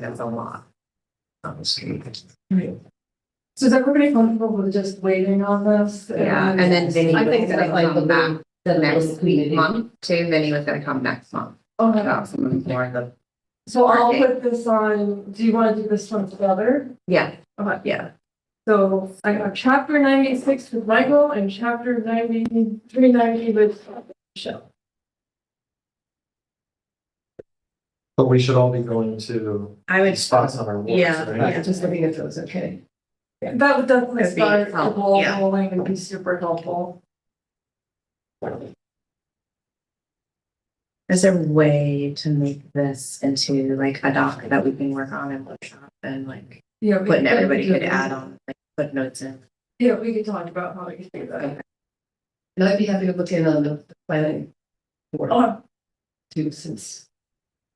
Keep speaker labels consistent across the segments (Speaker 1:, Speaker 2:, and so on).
Speaker 1: that's a lot.
Speaker 2: So is everybody comfortable with just waiting on this?
Speaker 1: Yeah, and then Vinny
Speaker 2: I think
Speaker 1: was
Speaker 2: that
Speaker 1: gonna
Speaker 2: like
Speaker 1: come
Speaker 2: the.
Speaker 1: back the next week, month, too, Vinny was gonna come next month,
Speaker 2: Okay,
Speaker 1: about some of the more of the,
Speaker 2: Oh so I'll put this on, do you want to do this one together?
Speaker 1: yeah,
Speaker 2: Okay,
Speaker 1: yeah.
Speaker 2: so I got chapter ninety-six with Michael and chapter ninety-three ninety with Michelle.
Speaker 3: But we should all be going to
Speaker 4: I would,
Speaker 3: spots on our warrants,
Speaker 4: yeah,
Speaker 3: right?
Speaker 4: yeah,
Speaker 2: just looking at those, okay. That would definitely
Speaker 4: Could be
Speaker 2: start the
Speaker 1: helpful,
Speaker 2: ball
Speaker 4: yeah.
Speaker 2: rolling and be super helpful.
Speaker 4: is there a way to make this into like a doc that we can work on and workshop and like,
Speaker 2: Yeah. we-
Speaker 4: putting everybody could add on, like, put notes in?
Speaker 2: Yeah, we could talk about how we could do that.
Speaker 5: And I'd be happy to look in on the planning board
Speaker 2: Oh,
Speaker 5: too, since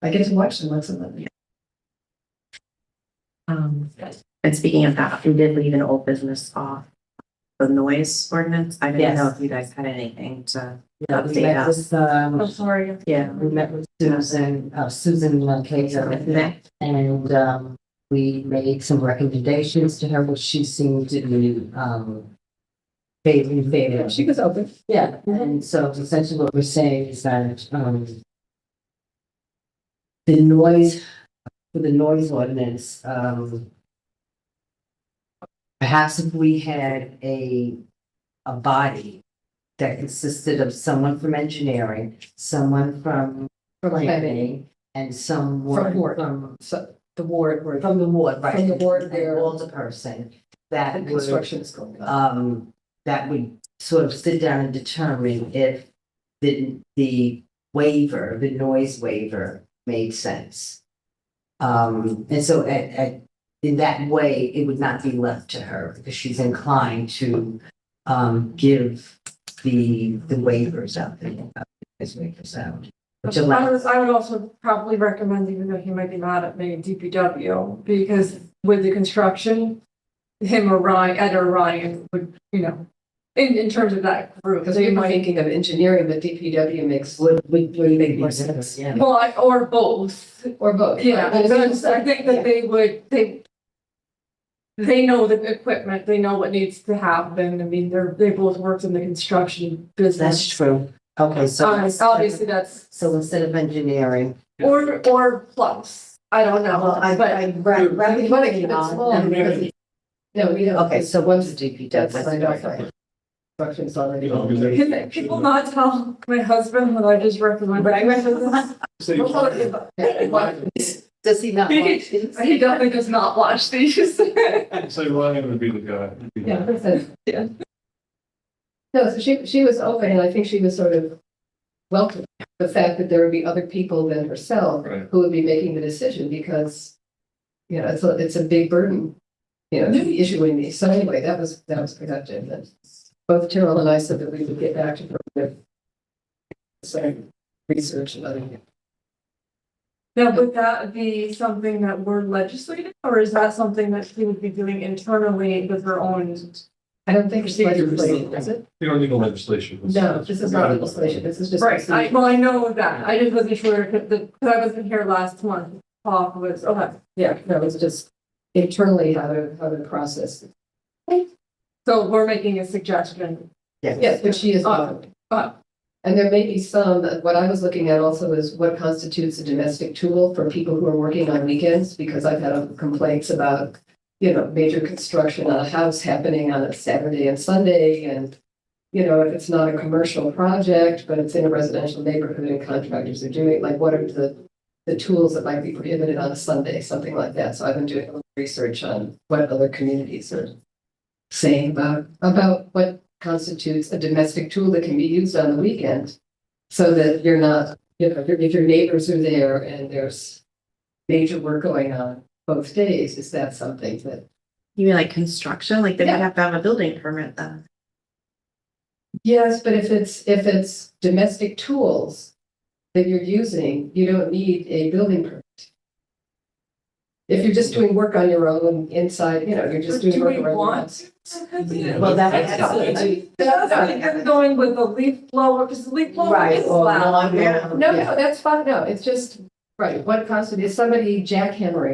Speaker 5: I get to watch them once a month.
Speaker 4: Um, and speaking of that, we did leave an old business off. The noise ordinance, I didn't know if you guys had anything to update us.
Speaker 5: with, um,
Speaker 2: I'm sorry.
Speaker 4: Yeah.
Speaker 5: we met with Susan, uh, Susan Lacaza, and, um, we made some recommendations to her, which she seemed to be, um, favor, favor.
Speaker 2: She was open.
Speaker 5: Yeah, and so essentially what we're saying is that, um, the noise, for the noise ordinance, um, perhaps if we had a, a body that consisted of someone from engineering, someone from planning, and someone
Speaker 6: From ward.
Speaker 5: from,
Speaker 6: So the ward where
Speaker 5: from the ward, right?
Speaker 6: From the ward
Speaker 5: An
Speaker 6: where-
Speaker 5: older person that
Speaker 6: the
Speaker 5: would
Speaker 6: construction is going on.
Speaker 5: um, that would sort of sit down and determine if the, the waiver, the noise waiver made sense. Um, and so at, at, in that way, it would not be left to her because she's inclined to, um, give the, the waivers out, the, as waivers out. Which
Speaker 2: I
Speaker 5: allows,
Speaker 2: was, I would also probably recommend, even though he might be mad at me, DPW, because with the construction, him or Ryan, Ed or Ryan would, you know, in, in terms of that group,
Speaker 6: Because
Speaker 2: they
Speaker 6: we were
Speaker 2: might,
Speaker 6: thinking of engineering, but DPW makes wood
Speaker 5: would, would, would make more sense, yeah.
Speaker 2: well, I- or both.
Speaker 6: or both.
Speaker 2: Yeah,
Speaker 6: But it's-
Speaker 2: because I think that they would, they they know the equipment, they know what needs to happen. I mean, they're, they both worked in the construction
Speaker 5: That's
Speaker 2: business.
Speaker 5: true. Okay, so.
Speaker 2: Uh, Obviously, that's,
Speaker 5: So instead of engineering.
Speaker 2: or, or plus, I don't know, but.
Speaker 5: right, right.
Speaker 6: We want to keep it small. because- No, we don't.
Speaker 5: Okay, so what's the DPW?
Speaker 6: That's signed off on. Construction's already.
Speaker 2: Can people not tell my husband that I just recommended? I recommend this.
Speaker 5: Does he not watch these?
Speaker 2: He definitely does not watch these.
Speaker 3: So Ryan would be the guy.
Speaker 6: Yeah, that's it. Yeah. No, so she, she was open and I think she was sort of welcoming the fact that there would be other people than herself
Speaker 3: Right.
Speaker 6: who would be making the decision because, you know, it's a, it's a big burden, you know, issuing these. So anyway, that was, that was productive. And both Terrell and I said that we would get back to her with some research and other.
Speaker 2: Now, would that be something that we're legislating, or is that something that she would be doing internally with her own?
Speaker 6: I don't think it's
Speaker 2: Procedures.
Speaker 6: legislation, is it?
Speaker 3: You don't need a legislation.
Speaker 6: No, this is not legislation. This is just.
Speaker 2: Right, I,
Speaker 6: procedure.
Speaker 2: well, I know that, I just wasn't sure, if the, because I wasn't here last month, talk was, okay.
Speaker 6: Yeah, no, it's just internally how to, how to process. it.
Speaker 2: So we're making a suggestion,
Speaker 6: Yes, but she is.
Speaker 2: Uh, uh.
Speaker 6: And there may be some, what I was looking at also is what constitutes a domestic tool for people who are working on weekends, because I've had complaints about, you know, major construction on a house happening on a Saturday and Sunday, and, you know, if it's not a commercial project, but it's in a residential neighborhood and contractors are doing, like, what are the, the tools that might be prohibited on a Sunday, something like that. So I've been doing a little research on what other communities are saying about, about what constitutes a domestic tool that can be used on the weekend. So that you're not, you know, if your neighbors are there and there's major work going on both days, is that something that?
Speaker 4: You mean like construction? Like they would
Speaker 6: Yeah.
Speaker 4: have to have a building permit then?
Speaker 6: Yes, but if it's, if it's domestic tools that you're using, you don't need a building permit. If you're just doing work on your own inside, you know, you're just doing
Speaker 2: do
Speaker 6: work
Speaker 2: we
Speaker 6: around. the
Speaker 2: want?
Speaker 6: house.
Speaker 5: Well, that-
Speaker 2: That's not- That's not even going with the leaf blower, because the leaf blower
Speaker 5: Right,
Speaker 2: is
Speaker 5: or
Speaker 2: loud.
Speaker 5: non-
Speaker 6: No,
Speaker 5: yeah.
Speaker 6: no, that's fine, no, it's just, right, what constitutes, is somebody jackhammering